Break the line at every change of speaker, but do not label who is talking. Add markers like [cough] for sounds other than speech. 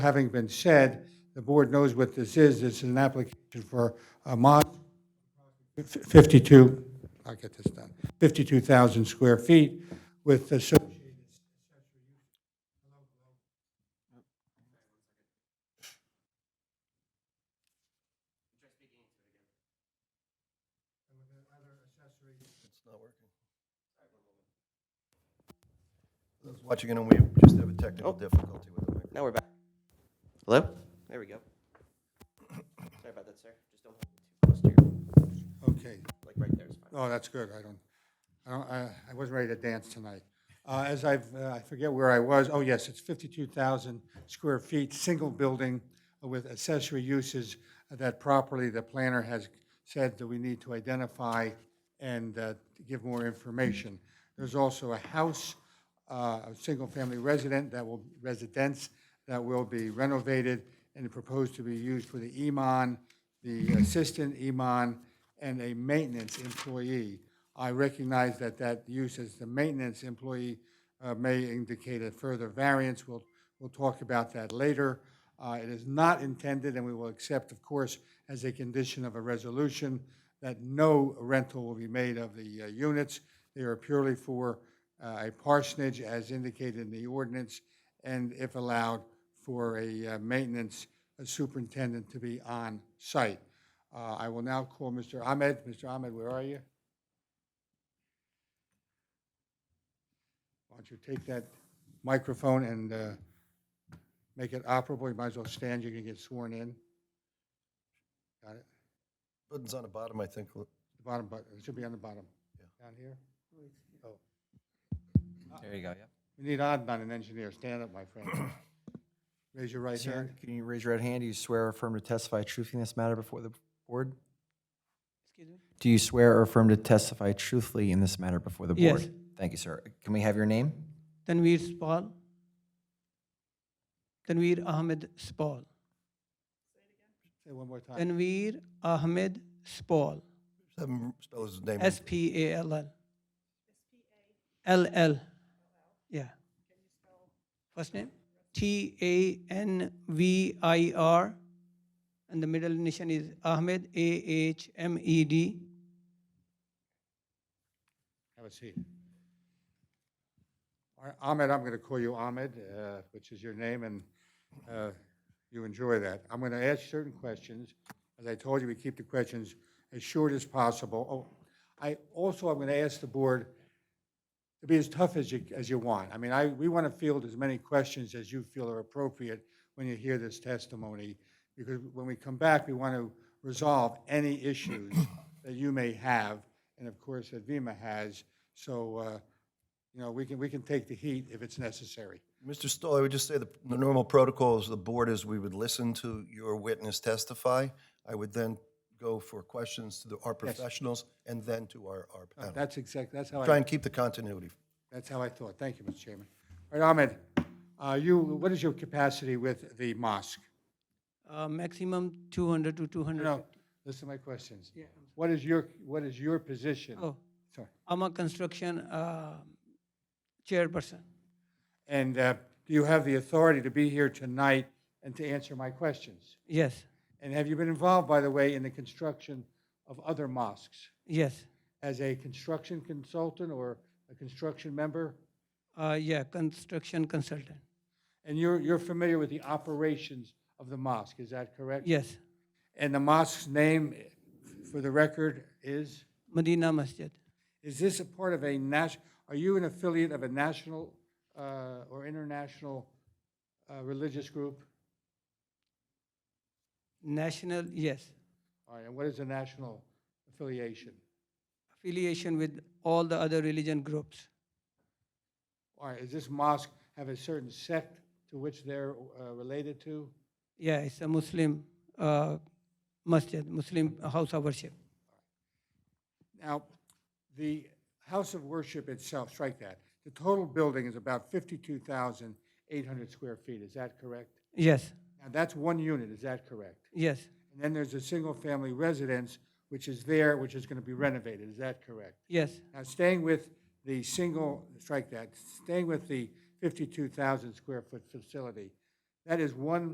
Having been said, the board knows what this is. It's an application for a mod, 52, I'll get this done, 52,000 square feet with associated.
Those watching at home, we just have a technical difficulty with the
Oh.
microphone.
Now we're back. Hello? There we go. Sorry about that, sir. Just don't hold it too close to your,
Okay,
like right there is fine.
oh, that's good. I don't, I don't, I I wasn't ready to dance tonight. Uh, As I've, uh, I forget where I was, oh, yes, it's 52,000 square feet, single building with accessory uses that properly the planner has said that we need to identify and uh, to give more information. There's also a house uh, a single-family resident that will, residence that will be renovated and proposed to be used for the E Iman, the assistant E Iman, and a maintenance employee. I recognize that that use as the maintenance employee uh, may indicate a further variance. We'll, we'll talk about that later. Uh, It is not intended, and we will accept, of course, as a condition of a resolution, that no rental will be made of the uh, units. They are purely for uh, a parsonage as indicated in the ordinance, and if allowed, for a uh, maintenance superintendent to be on site. Uh, I will now call Mr. Ahmed. Mr. Ahmed, where are you? Why don't you take that microphone and uh, make it operable? You might as well stand, you're going to get sworn in. Got it?
Button's on the bottom, I think.
The bottom button, it should be on the bottom. Down here? Oh.
There you go, yeah.
We need Adnan, an engineer. Stand up, my [coughs] friend. Raise your right hand.
Sir, can you raise your right hand? Do you swear or affirm to testify truthfully in this matter before the board? Do you swear or affirm to testify truthfully in this matter before the
Yes.
board? Thank you, sir. Can we have your name?
Tanveer Spall. Tanveer Ahmed Spall.
Say one more time.
Tanveer Ahmed Spall.
Have him spell his name.
S P A L L. L L. Yeah. First name? T A N V I R. And the middle initial is Ahmed, A H M E D.
Have a seat. All right, Ahmed, I'm going to call you Ahmed, uh, which is your name, and uh, you enjoy that. I'm going to ask certain questions. As I told you, we keep the questions as short as possible. Oh, I, also, I'm going to ask the board to be as tough as you, as you want. I mean, I, we want to field as many questions as you feel are appropriate when you hear this testimony, because when we come back, we want to resolve any
[coughs]
issues that you may have, and of course, that Vima has. So, uh, you know, we can, we can take the heat if it's necessary.
Mr. Stoll, I would just say the the normal protocols of the board is we would listen to your witness testify. I would then go for questions to the- our professionals and then to our our
Oh,
panel.
That's exact, that's how
Try
I,
and keep the continuity.
that's how I thought. Thank you, Mr. Chairman. All right, Ahmed, uh, you, what is your capacity with the mosque?
Uh, maximum 200 to 200.
No, listen to my questions. What is your, what is your position?
Oh,
Sorry.
I'm a construction uh, chairperson.
And uh, do you have the authority to be here tonight and to answer my questions?
Yes.
And have you been involved, by the way, in the construction of other mosques
Yes.
as a construction consultant or a construction member?
Uh, yeah, construction consultant.
And you're, you're familiar with the operations of the mosque, is that correct?
Yes,
And the mosque's name, for the record, is?
Medina Masjid.
Is this a part of a national, are you an affiliate of a national uh, or international uh, religious group?
National, yes,
All right, and what is a national affiliation?
affiliation with all the other religion groups.
All right, does this mosque have a certain sect to which they're uh, related to?
Yeah, it's a Muslim uh, masjid, Muslim house of worship.
Now, the house of worship itself, strike that, the total building is about 52,800 square feet, is that correct?
Yes,
Now, that's one unit, is that correct?
yes,
And then there's a single-family residence, which is there, which is going to be renovated, is that correct?
yes,
Now, staying with the single, strike that, staying with the 52,000 square foot facility, that is one